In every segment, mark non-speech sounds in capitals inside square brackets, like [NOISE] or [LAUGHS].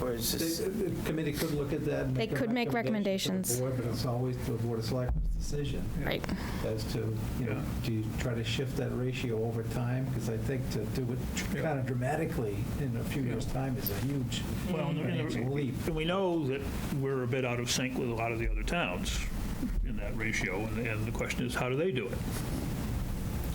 Or is They- this, The the committee could look at that. and They could make to the Board, but it's always the Board of Selectmen's decision Right. as to, you know, do you try to shift that ratio over time? Because I think to do it kind of dramatically in a few years' time is a huge, Well, and- huge Mm-hmm. leap. and we know that we're a bit out of sync with a lot of the other towns in that ratio, and- and the question is, how do they do it?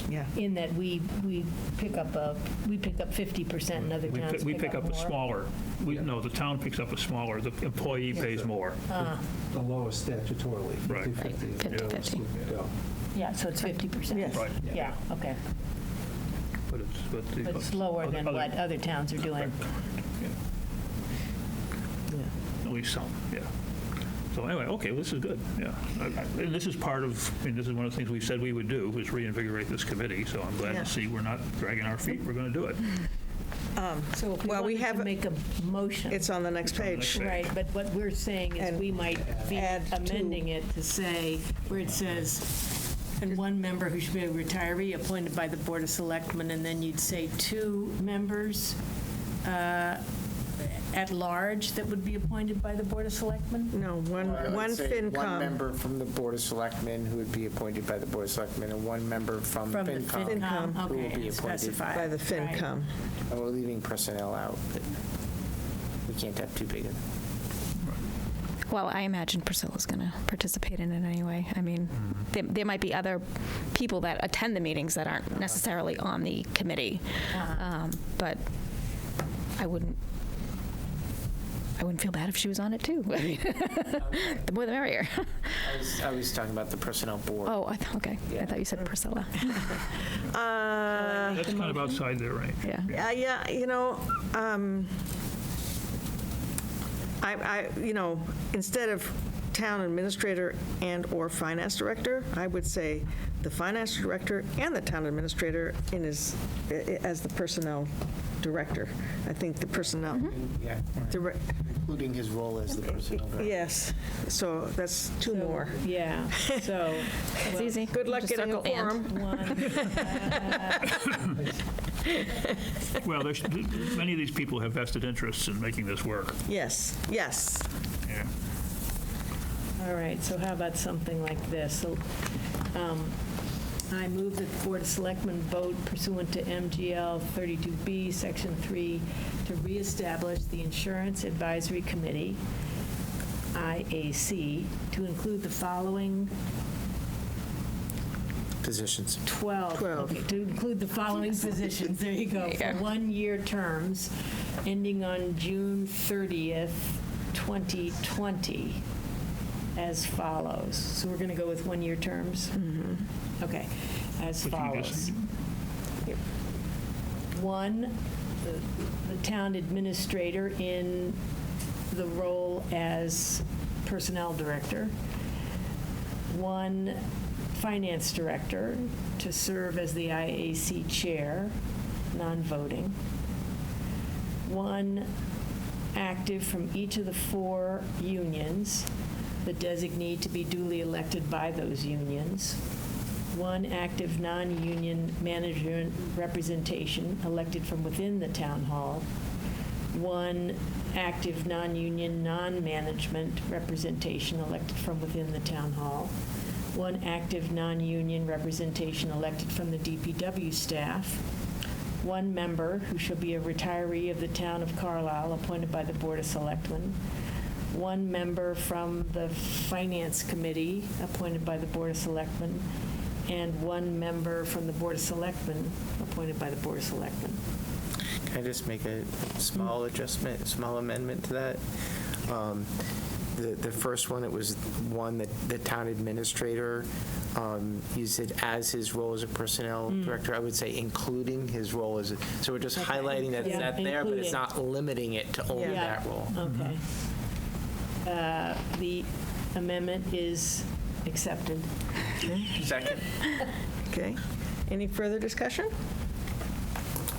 Yeah. in that we, we pick up a, we pick up 50% and other We towns pi- We pick up a more. smaller, we, no, the town picks up a smaller, the employee pays more. Uh, The lowest statutorily, Right. 50/50. is the Right, lowest 50-50. we go. Yeah, so it's 50%. Yes. Right. Yeah, okay. But it's, but the. But it's lower than other- what other towns are doing. At least some, yeah. So anyway, okay, this is good, yeah. I- I- And this is part of, I mean, this is one of the things we said we would do, was reinvigorate this committee, so I'm glad Yeah. to see we're not dragging our feet, we're going to do it. So if we Um, Well, we wanted have- to make a motion, It's on the next page. right, but what we're saying And is we might be add to- amending it to say, where it says, and one member who should be a retiree appointed by the Board of Selectmen, and then you'd say two members uh, at large that would be appointed by the Board of Selectmen? No, one, I would one say one FinCom. member from the Board of Selectmen who would be appointed by the Board of Selectmen, and one member from From the FinCom. FinCom, Who will be okay, and appointed. specify. By the Right. FinCom. And we're leaving personnel out. We can't have too big a Well, I imagine Priscilla's going to participate in it anyway. I mean, there, there might be other people that attend the meetings that aren't necessarily on the committee. Uh-huh. Um, But I wouldn't, I wouldn't feel bad if she was on it too. [LAUGHS] I mean, The more the merrier. [LAUGHS] I was- I was talking about the Personnel Board. Oh, I thought, okay. I Yeah. thought you said [LAUGHS] Priscilla. Uh, That's kind of outside their range. Yeah. Yeah, yeah, you know, um, I, I, you know, instead of town administrator and/or finance director, I would say the finance director and the town administrator in his, i- i- as the personnel director. I think the personnel, Yeah, direc- including his role as the Personnel [LAUGHS] Board. yes, so that's two So, more. Yeah, [LAUGHS] so. It's easy. Good luck Just getting a circle and. quorum. Well, there's, many of these people have vested interests in making this work. Yes, yes. Yeah. [LAUGHS] All right, so how about something like this? So, um, I move that the Board of Selectmen vote pursuant to MGL 32B, Section 3, to reestablish the Insurance Advisory Committee, IAC, to include the following Positions. 12. Twelve. Okay, To include the following positions, there you go, for one-year terms, ending on June 30th, 2020, as follows. So we're going to go with one-year terms? Okay, as Would you just- follows. One, the- the town administrator in the role as personnel director one finance director to serve as the IAC chair, non-voting, one active from each of the four unions, the designee to be duly elected by those unions, one active non-union manager representation elected from within the town hall, one active non-union, non-management representation elected from within the town hall, one active non-union representation elected from the DPW staff, one member who shall be a retiree of the town of Carlisle appointed by the Board of Selectmen, one member from the Finance Committee appointed by the Board of Selectmen, and one member from the Board of Selectmen appointed by the Board of Selectmen. Can I just make a small adjustment, small amendment to that? Um, The, the first one, it was one that the town administrator um, used it as his role as a personnel Hmm. director. I would say including his role as, a- so we're just highlighting that it's Yeah. not there, but it's Including. not limiting it to only Yeah. that role. Okay. Uh, The amendment is accepted. Second. Okay. Any further discussion?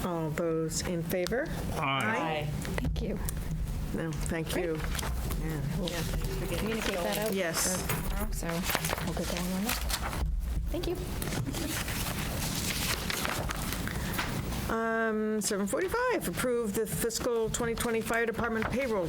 All those in favor? Aye. Aye. Thank you. No, thank you. Communicate that out. Yes. tomorrow, so we'll get going on that. Thank you. Um, 7:45, approve the fiscal 2020 fire department payroll